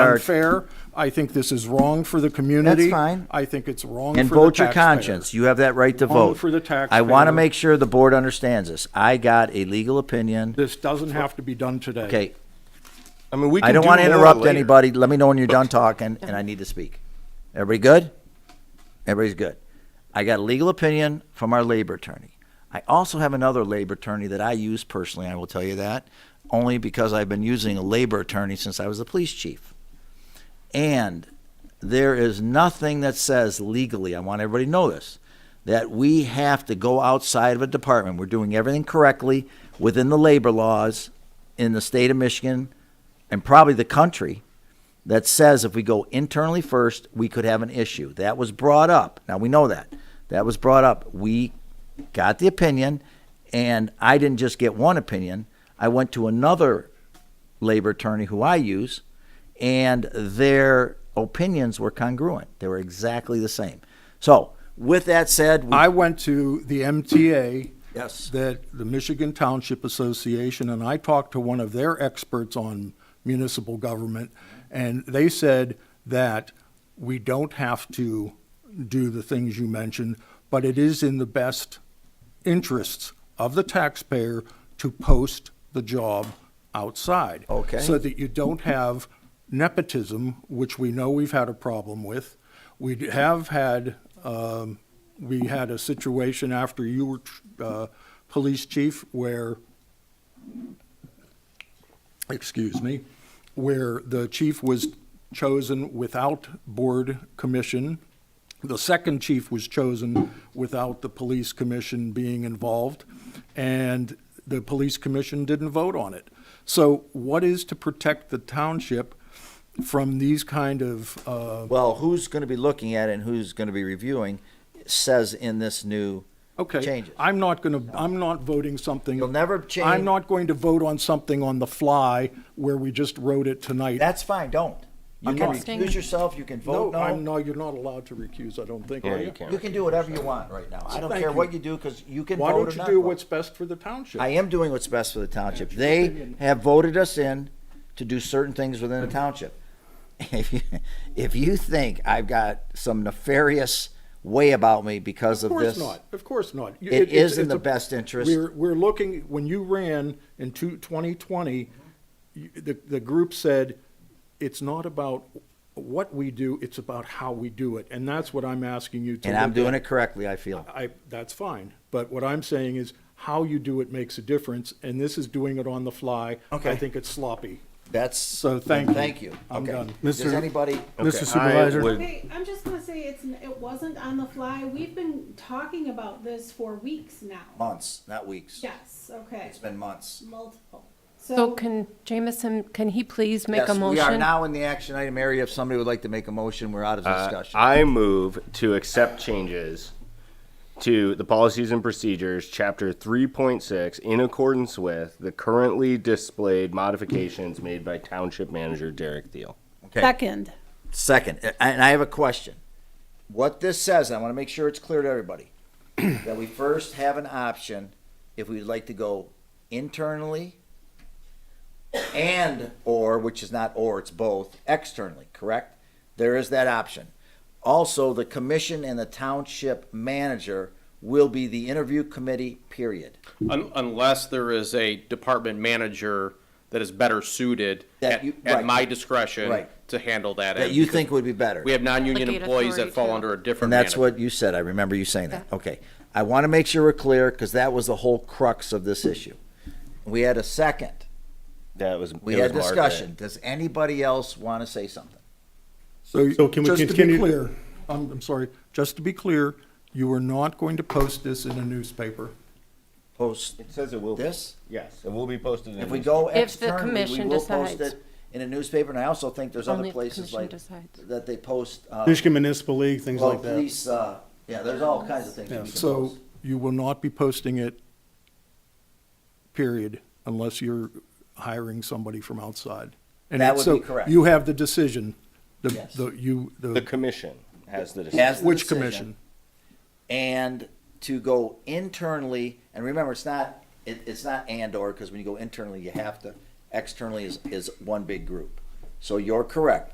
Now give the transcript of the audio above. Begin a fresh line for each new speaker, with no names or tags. unfair. I think this is wrong for the community.
fine.
I think it's wrong
And
for the
vote your
taxpayer.
conscience. You have that right to
Wrong
vote.
for the
I
taxpayer.
want to make sure the board understands this. I got a legal opinion.
This doesn't have to be done today.
Okay,
I mean, we can
I don't
do
want to
more
interrupt
later.
anybody. Let me know when you're done talking and I need to speak. Everybody good? Everybody's good. I got a legal opinion from our labor attorney. I also have another labor attorney that I use personally, I will tell you that, only because I've been using a labor attorney since I was a police chief. And there is nothing that says legally, I want everybody to know this, that we have to go outside of a department. We're doing everything correctly within the labor laws in the state of Michigan and probably the country that says if we go internally first, we could have an issue. That was brought up. Now we know that. That was brought up. We got the opinion, and I didn't just get one opinion. I went to another labor attorney who I use, and their opinions were congruent. They were exactly the same. So, with that said, we,
I went to the MTA.
Yes.
That the Michigan Township Association, and I talked to one of their experts on municipal government, and they said that we don't have to do the things you mentioned, but it is in the best interests of the taxpayer to post the job outside.
Okay.
So that you don't have nepotism, which we know we've had a problem with. We d- have had, um, we had a situation after you were, tr- uh, police chief where, excuse me, where the chief was chosen without board commission. The second chief was chosen without the police commission being involved, and the police commission didn't vote on it. So what is to protect the township from these kind of, uh,
well, who's going to be looking at it and who's going to be reviewing says in this new
okay.
changes.
I'm not gonna, I'm not voting something.
You'll never change-
I'm not going to vote on something on the fly where we just wrote it tonight.
That's fine. Don't. You
I'm
can
not-
recuse yourself. You can
No,
vote no.
I'm, no, you're not allowed to recuse, I don't think,
Yeah,
are
you
you?
can.
You can do whatever you want right now. I don't
Thank
care
you.
what you do because you can
Why
vote
don't
or
you
not
do
vote.
what's best for the township?
I am doing what's best for the township. They have voted us in to do certain things within the township. If you, if you think I've got some nefarious way about me because
Of
of
course
this,
not. Of course not. You-
It
it's-
is in
it's
the
a-
best interest.
We're, we're looking, when you ran in two- 2020, you- the, the group said, it's not about what we do, it's about how we do it. And that's what I'm asking you to.
and I'm
look
doing
at.
it correctly, I feel.
I, that's fine. But what I'm saying is how you do it makes a difference. And this is doing it on the fly. I
Okay.
think it's sloppy.
That's
So thank you.
Thank you.
I'm
okay.
done.
Does
Mr.
anybody?
Mr.
Okay, I
Supervisor?
would-
Okay, I'm just gonna say it's, n- it wasn't on the fly. We've been talking about this for weeks now.
Months, not weeks.
Yes, okay,
It's been months.
multiple.
So
So,
can Jamison, can he please make a
yes, we are
motion?
now in the action item area. If somebody would like to make a motion, we're out of
Uh,
discussion.
I move to accept changes to the policies and procedures, chapter three point six, in accordance with the currently displayed modifications made by township manager Derek Thiel.
okay.
second,
Second, a- and I have a question. What this says, and I want to make sure it's clear to everybody, that we first have an option if we'd like to go internally and or, which is not or, it's both, externally, correct? There is that option. Also, the commission and the township manager will be the interview committee, period.
Un- Unless there is a department manager that is better suited
That
at,
you- right.
at my discretion
Right.
to handle that.
That
end,
you
because
think would be better.
We have non-union
Delegate
employees
authority
that fall
to-
under a different
And that's
manager.
what you said. I remember you saying that. Okay. I want to make sure we're clear because that was the whole crux of this issue. We had a second.
That was
We
it
had
was Margaret.
discussion. Does anybody else want to say something?
So can we
Just to be
continue-
clear, I'm, I'm sorry, just to be clear, you are not going to post this in a newspaper.
Post
It says it will. be.
this?
Yes, it will be posted. in
If we
the-
go
If the
externally, we
commission
will post
decides.
it in a newspaper. And I also think there's
Only
other
if the
places
commission
like
decides.
that they post, uh,
Michigan Municipal League, things
well,
like that.
police, uh, yeah, there's all kinds of things. we can
So
post.
you will not be posting it, period, unless you're hiring somebody from outside. And
That
it-
would
so
be correct.
You have the decision, the,
Yes.
the, you,
The
the,
commission has the
Has
decision.
the
which
decision.
commission?
and to go internally and remember it's not it, it's not and or because when you go internally you have to externally is, is one big group so you're correct